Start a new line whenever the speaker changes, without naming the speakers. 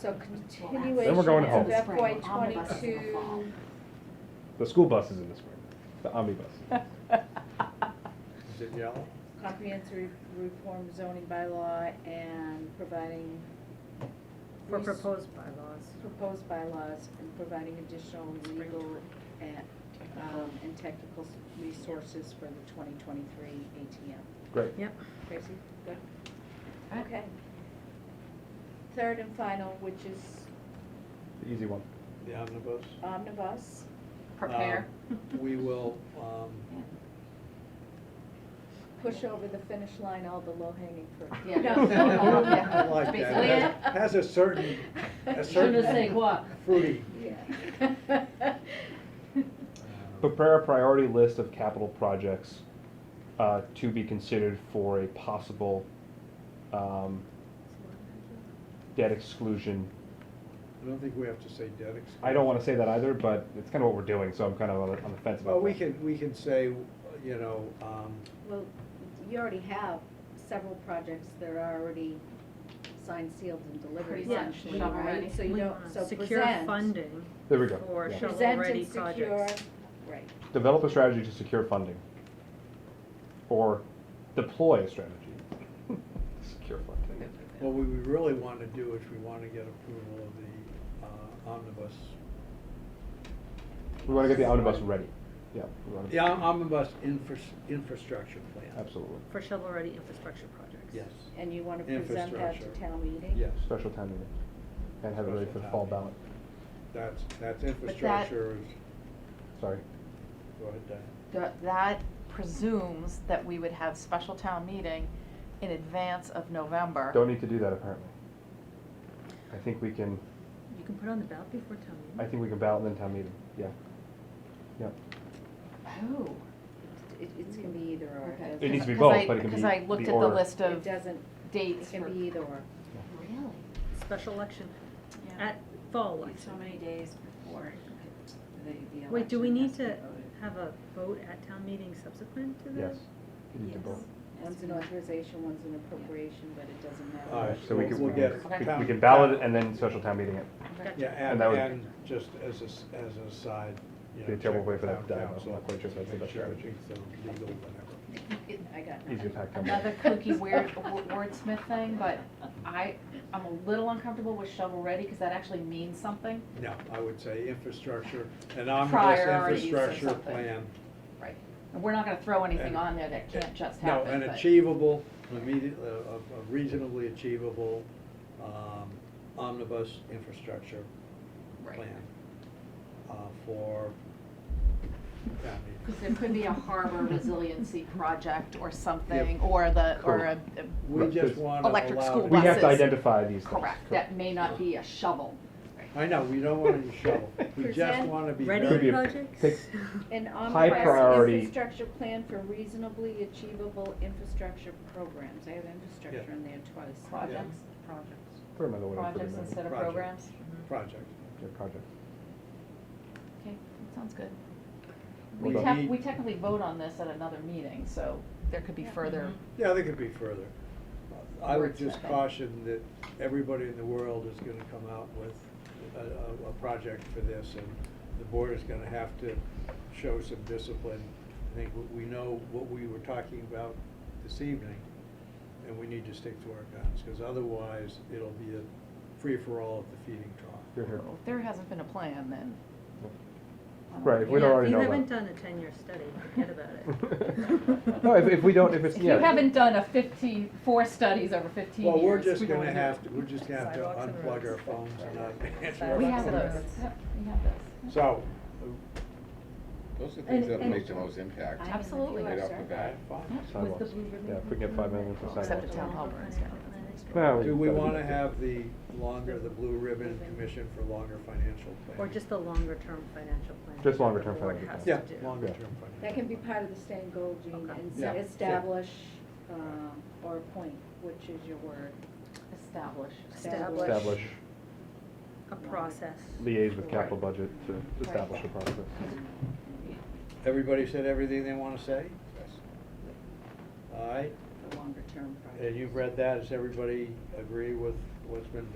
So continuation
Then we're going
of
home.
FY twenty-two.
The school bus is in the spring, the omnibus.
Is it yellow?
comprehensive reform zoning bylaw and providing.
For
res-
proposed bylaws.
Proposed bylaws and providing additional legal and, um, and technical s- resources for the twenty twenty-three ATM.
Great.
Yep.
Tracy, good? Okay. Third and final, which is
The easy one.
The omnibus?
omnibus.
Prepare.
Um, We will, um,
Push over the finish line, all the low-hanging fruit.
Yeah.
I like
Basically,
that. It Has a certain, a certain.
Shouldn't say what.
Fruity.
Yeah.
um,
Prepare a priority list of capital projects uh, to be considered for a possible um, debt exclusion.
I don't think we have to say debt exclusion.
I don't want to say that either, but it's kind of what we're doing, so I'm kind of on the, on the fence about
Well, we
that.
can, we can say, you know, um,
Well, you already have several projects that are already signed, sealed, and delivered
Pretty much
essentially,
shovel ready.
right? So you
We
don't,
wanna
so present.
Secure funding.
There we go,
For
yeah.
shovel-ready
Present and secure,
projects.
right,
Develop a strategy to secure funding, or deploy a strategy. secure funding.
what we really want to do is we want to get approval of the uh, omnibus.
We want to get the omnibus ready. Yeah. we wanna-
The om- omnibus infra- infrastructure plan.
Absolutely.
For shovel-ready infrastructure projects.
Yes.
and you wanna present that to
Infrastructure.
town meeting?
Yes,
Special town meeting, and have it ready for the fall
Special town
ballot.
that's, that's infrastructure is,
Sorry.
go ahead, Diane.
That, that presumes that we would have special town meeting in advance of November.
Don't need to do that apparently. I think we can,
You can put on the ballot before town
I
meeting.
think we can ballot in town meeting, yeah. Yeah,
Oh.
It, it's gonna be either or.
Okay.
e-, It needs to be
Because
both,
I-
but it can
Because
be
I looked
the
at the
order.
list
It
of
doesn't, it
dates
can
for,
be either or.
Really?
Special election,
Yeah.
at fall
Like so
election.
many days before the, the election.
Wait, do we need
has be
to
voted.
have a vote at town meeting subsequent
Mm-hmm.
to
yes.
this?
You need to
Yes.
both.
Has
One's
to
an
be-
authorization, one's an appropriation, but it doesn't matter.
All right,
So we
We'll-
can,
we'll
we
get
can- we-
it.
we
Town-
can ballot it
town-
and then special town meeting it.
Yeah,
And
and,
that would-
and just as a, s- as a side, you know.
Be a terrible
check
way
with
for that
town
to die, I'm
council,
not quite sure if that's the
make
best
sure
strategy.
it's, um, legal, whatever.
I got nothing.
Easier pack.
another kooky weird wo- wordsmith thing, but I, I'm a little uncomfortable with shovel-ready, because that actually means something.
No, I would say infrastructure, an omnibus
Priorities or
infrastructure
something.
plan.
Right. And we're not gonna throw anything
And-
on there that can't just
No,
happen,
an
but-
achievable, immediate, a a reasonably achievable, um, omnibus infrastructure
Right.
plan. Uh, for, town meeting.
Because there could be a harbor resiliency project or something, or the, or a, a-
we just
Right.
wanna allow.
Electric school
We have to
buses.
identify these things.
correct, that may not be a shovel.
I know, we don't want any shovel, we just
Present
wanna be very.
Could be
Ready
a- take-
projects?
An
High
omnibus
priority.
infrastructure plan for reasonably achievable infrastructure programs. I have infrastructure
Yeah.
in there twice.
Projects,
Projects.
Put another one in for the
projects
minute.
instead of
Project.
programs.
project.
Yeah, project.
Okay, that sounds good.
We
We
don't
tec-
need-
we technically vote on this at another meeting, so there could be further,
Yeah, they could be further. I would
Wordsmithing.
just caution that everybody in the world is gonna come out with a, a, a project for this, and the board is gonna have to show some discipline. I think we- we know what we were talking about this evening, and we need to stick to our guns, because otherwise, it'll be a free-for-all at the feeding trough.
You're here.
Well, if there hasn't been a plan, then.
Right, if we
Yeah,
don't already know that.
If you haven't done a ten-year study, forget about it.
No, if, if we don't, if it's,
If you
yeah.
haven't done a fifteen, four studies over fifteen years.
Well, we're just
we don't
gonna
wanna do
have
it.
to, we're just gonna have to
Sidewalks and
unplug our
roads.
phones and not answer our
Sidewalks
We have
and
phones.
those,
roads.
Yep, we have those.
So. uh,
Those are things
And-
that
and-
make the most impact.
I'm in the
Absolutely.
Right
US,
off
sir.
the bat.
Fine.
Sidewalks. Yeah, if we get five million for
Except
sidewalks.
the town hall burns down.
Well,
Do we
gotta do
wanna
that.
have the longer, the blue ribbon commission for longer financial planning?
Or just the longer-term financial plan.
Just longer-term
that the board
financial
has
Yeah,
to do.
longer
Yeah.
term financial.
That can be part of the same goal, Gene,
Okay.
and
Yeah.
s- establish, um, or appoint, which is your word.
Establish.
Establish.
Establish,
A process.
liaise with capital budget to establish a process.
Everybody said everything they wanna say?
Yes.
All right,
The longer term project.
and you've read that, does everybody agree with what's been